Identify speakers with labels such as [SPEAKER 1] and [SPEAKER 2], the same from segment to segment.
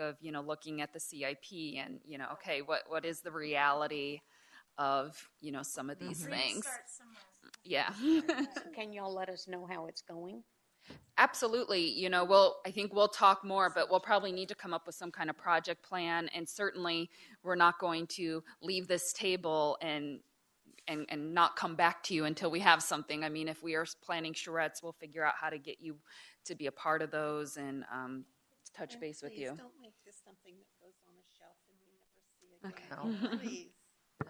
[SPEAKER 1] of you know looking at the CIP and you know okay what what is the reality of you know some of
[SPEAKER 2] Mm-hmm.
[SPEAKER 1] these things yeah
[SPEAKER 3] Can y'all let us know how it's going?
[SPEAKER 1] absolutely you know we'll i think we'll talk more but we'll probably need to come up with some kind of project plan and certainly we're not going to leave this table and and, and not come back to you until we have something i mean if we are planning charrettes we'll figure out how to get you to be a part of those and um, touch base with you
[SPEAKER 2] Please don't make this something that goes on a shelf and we never see again. Please.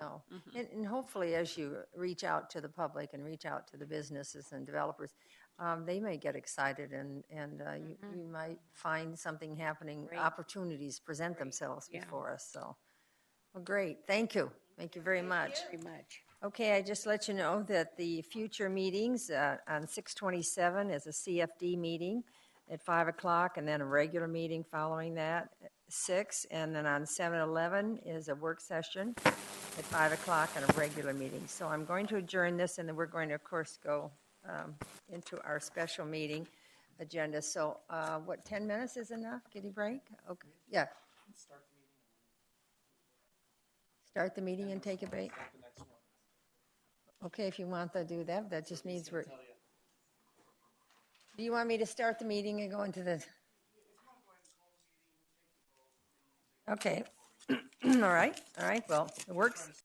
[SPEAKER 4] No. And, and hopefully, as you reach out to the public and reach out to the businesses and developers, um, they may get excited and, and uh, you, you might find something happening, opportunities present themselves before us. So, well, great. Thank you. Thank you very much.
[SPEAKER 3] Pretty much.
[SPEAKER 4] Okay, I just let you know that the future meetings uh, on 627 is a CFD meeting at 5 o'clock, and then a regular meeting following that at 6, and then on 711 is a work session at 5 o'clock and a regular meeting. So I'm going to adjourn this, and then we're going to, of course, go um, into our special meeting agenda. So uh, what, 10 minutes is enough? Get a break? Okay, yeah. Start the meeting and take a break? Okay, if you want to do that, that just means we're. Do you want me to start the meeting and go into the? Okay, all right, all right, well, it works.